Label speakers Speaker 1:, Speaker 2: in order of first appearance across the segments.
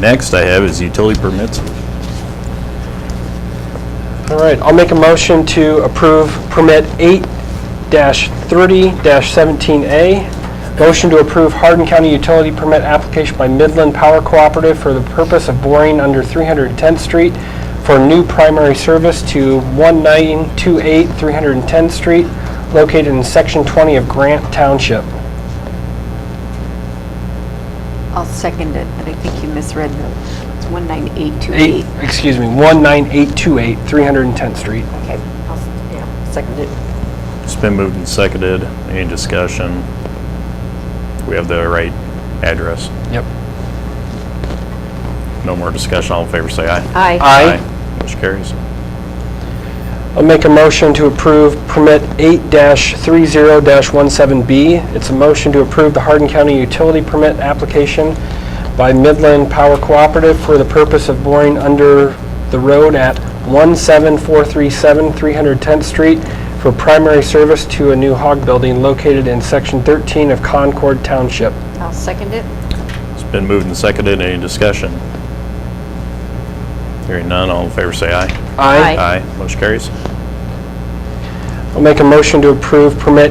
Speaker 1: Next I have is utility permits.
Speaker 2: All right, I'll make a motion to approve permit 8-30-17A. Motion to approve Hardin County Utility Permit application by Midland Power Cooperative for the purpose of boring under 310th Street for new primary service to 1928 310th Street, located in Section 20 of Grant Township.
Speaker 3: I'll second it, but I think you misread the, it's 19828.
Speaker 2: Eight, excuse me, 19828 310th Street.
Speaker 3: Okay, I'll, s- yeah, second it.
Speaker 1: It's been moved and seconded. Any discussion? We have the right address.
Speaker 2: Yep.
Speaker 1: No more discussion. All in favor, say aye.
Speaker 3: Aye.
Speaker 2: Aye.
Speaker 1: Motion carries.
Speaker 2: I'll make a motion to approve permit 8-30-17B. It's a motion to approve the Hardin County Utility Permit application by Midland Power Cooperative for the purpose of boring under the road at 17437 310th Street for primary service to a new hog building located in Section 13 of Concord Township.
Speaker 3: I'll second it.
Speaker 1: It's been moved and seconded. Any discussion? Hearing none. All in favor, say aye.
Speaker 3: Aye.
Speaker 1: Aye. Motion carries.
Speaker 2: I'll make a motion to approve permit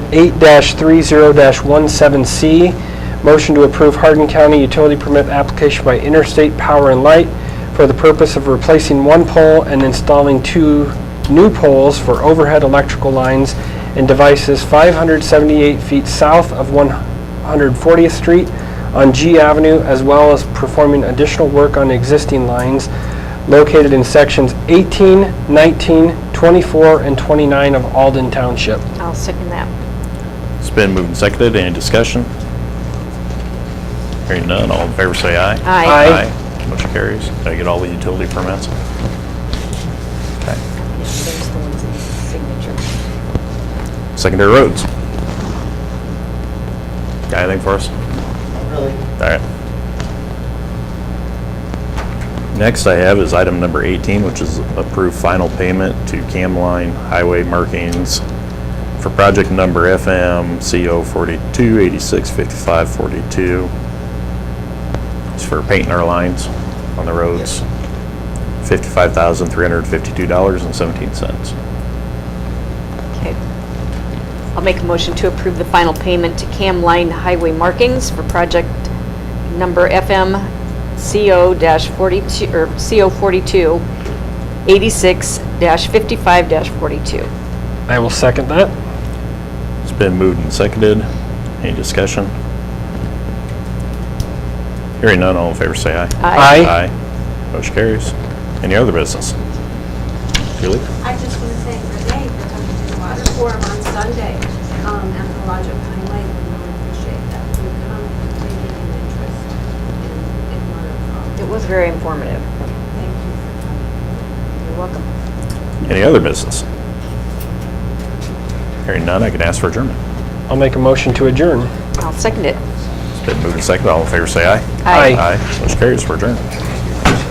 Speaker 2: 8-30-17C. Motion to approve Hardin County utility permit application by Interstate Power and Light for the purpose of replacing one pole and installing two new poles for overhead electrical lines and devices 578 feet south of 140th Street on G Avenue, as well as performing additional work on existing lines located in sections 18, 19, 24, and 29 of Alden Township.
Speaker 3: I'll second that.
Speaker 1: It's been moved and seconded. Any discussion? Hearing none. All in favor, say aye.
Speaker 3: Aye.
Speaker 2: Aye.
Speaker 1: Motion carries. Did I get all the utility permits? Okay.
Speaker 3: Yeah, There's the ones in the signature.
Speaker 1: Secondary roads. Got anything for us? All right. Next I have is item number 18, which is approve final payment to Camline Highway Markings for project number FM CO 42865542. It's for painting our lines on the roads. $55,352.17.
Speaker 3: Okay. I'll make a motion to approve the final payment to Cam Line Highway Markings for project number FM CO-42, or CO42, 86-55-42.
Speaker 2: I will second that.
Speaker 1: It's been moved and seconded. Any discussion? Hearing none, all in favor say aye. Aye.
Speaker 2: Aye.
Speaker 1: Motion carries. Any other business? Julie?
Speaker 4: I just want to thank Renee for coming to the water forum on Sunday um, at the Lodge of Pine Lake. We really appreciate that you come and taking an interest in in water.
Speaker 3: It was very informative.
Speaker 4: Thank you for coming.
Speaker 3: You're welcome.
Speaker 1: Any other business? Hearing none, I can ask for adjournment.
Speaker 2: I'll make a motion to adjourn.
Speaker 3: I'll second it.
Speaker 1: It's been moved and seconded. All in favor say aye.
Speaker 2: Aye.
Speaker 1: Aye. Motion carries for adjournment.